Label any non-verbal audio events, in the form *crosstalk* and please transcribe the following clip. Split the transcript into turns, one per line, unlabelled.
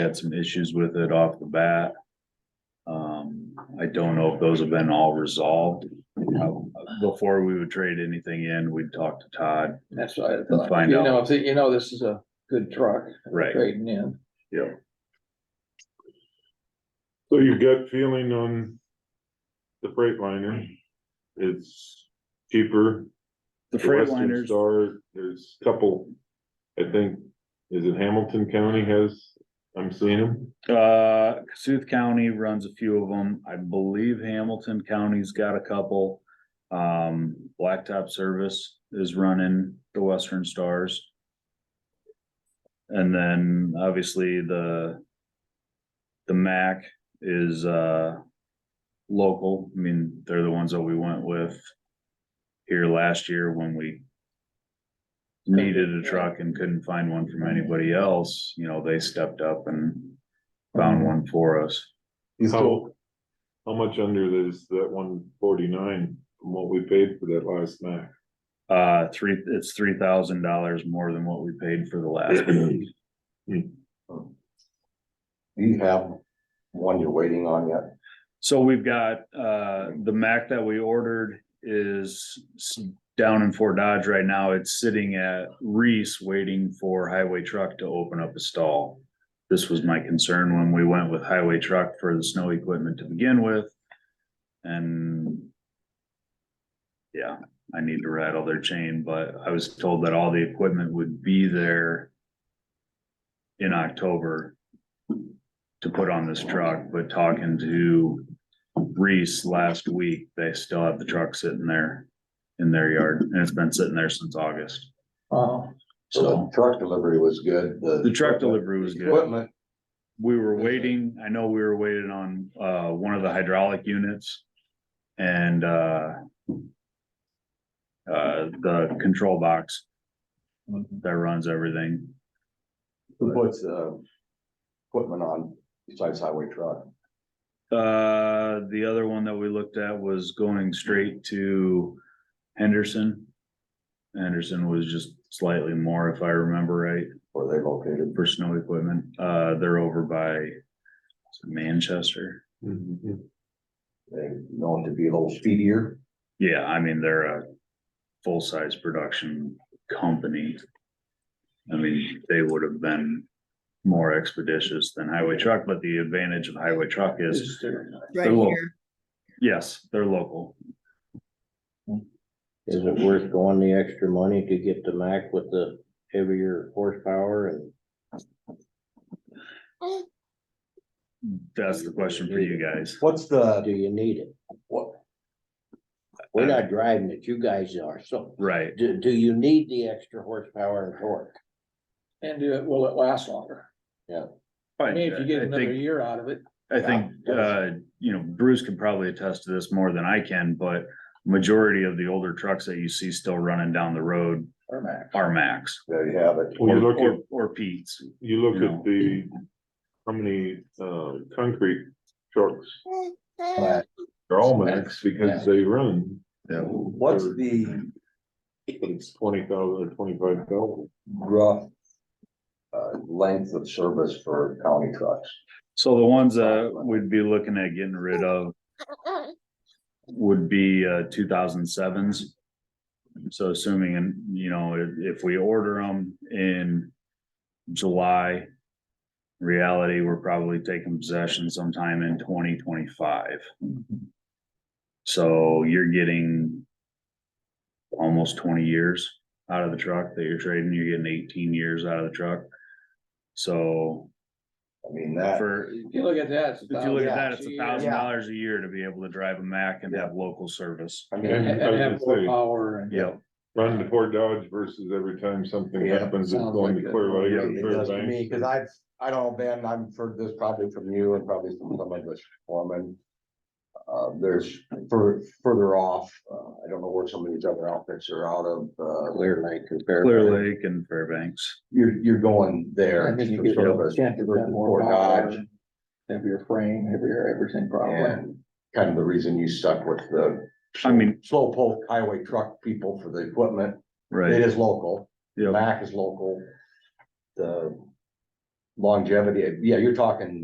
had some issues with it off the bat. Um, I don't know if those have been all resolved. Uh, Before we would trade anything in, we'd talk to Todd,
That's what I
Let's
thought,
find
you
out.
know, if, you know, this is a good truck
right?
trading in.
Yeah,
So your gut feeling on the Freightliner, it's cheaper.
the
Western
Freightliners,
Star, there's a couple, I think, is it Hamilton County has, I'm seeing them.
uh, Cassuth County runs a few of them. I believe Hamilton County's got a couple. Um, Blacktop Service is running the Western Stars. And then obviously the the MAC is uh local. I mean, they're the ones that we went with here last year when we needed a truck and couldn't find one from anybody else, you know, they stepped up and found one for us.
How, how much under is that one forty-nine from what we paid for that last Mac?
*clears throat* Uh, three, it's three thousand dollars more than what we paid for the
*clears throat*
last one.
Do you have one you're waiting on yet?
So we've got, uh, the Mac that we ordered is s- down in Fort Dodge right now. It's sitting at Reese waiting for highway truck to open up a stall. This was my concern when we went with highway truck for the snow equipment to begin with. And yeah, I need to rattle their chain, but I was told that all the equipment would be there in October to put on this truck, but talking to Reese last week, they still have the truck sitting there in their yard, and it's been sitting there since August.
Oh,
So
So
the truck delivery was good.
the truck delivery was good.
Equipment,
We were waiting, I know we were waiting on, uh, one of the hydraulic units and, uh, uh, the control box that runs everything.
who puts, uh, equipment on besides highway truck?
Uh, the other one that we looked at was going straight to Henderson. Henderson was just slightly more, if I remember right,
Where they located?
for snow equipment. Uh, they're over by Manchester.
They known to be a little speedier.
Yeah, I mean, they're a full-size production company. I mean, they would have been more expeditious than highway truck, but the advantage of highway truck is,
just there.
Right They're local. yes, they're local.
Is it worth going the extra money to get the Mac with the heavier horsepower and?
That's the question for you guys.
What's the,
Do you need it?
what,
We're not driving it, you guys are, so
Right,
do, do you need the extra horsepower and torque?
And do it, will it last longer? I
I
mean, if you get
I
another
think,
year out of it,
I think, uh, you know, Bruce can probably attest to this more than I can, but majority of the older trucks that you see still running down the road
or max.
are Max.
there you have it.
Well, you
or-
look at-
Or or Pete's,
You look
No.
at the, how many, uh, concrete trucks,
But
they're all Macs because they run.
What's the
It's twenty thousand or twenty-five thousand.
rough, uh, length of service for county trucks?
so the ones that we'd be looking at getting rid of would be, uh, two thousand sevens. So assuming, and, you know, if, if we order them in July, reality, we're probably taking possession sometime in twenty twenty-five. So you're getting almost twenty years out of the truck that you're trading, you're getting eighteen years out of the truck. So
I mean, that,
for,
If you look at that, it's a
if you look at that, it's
thousand
a
bucks
thousand
year.
dollars a year to be able to drive a Mack and have local service.
I
Yeah.
mean,
And and have more power and.
Yeah,
Run to Fort Dodge versus every time something
Yeah,
happens, it's
sounds
going
like
to
it.
Clear Lake.
It
or
does to me,
Fairbanks.
cause I've, I don't, know, Ben, I've heard this probably from you and probably from some of us foremen. Uh, there's fur- further off, uh, I don't know where some of these other outfits are out of, uh,
Clear Lake compared.
Clear Lake and Fairbanks.
you're, you're going there.
I think you
for
get
service
yeah, you
versus
get more
Fort
power,
Dodge,
Heavier frame, heavier everything probably.
And kind of the reason you stuck with the.
I mean-
Slow poke highway truck people for the equipment, it
Right,
is local,
yeah,
Mac is local. The longevity, yeah, you're talking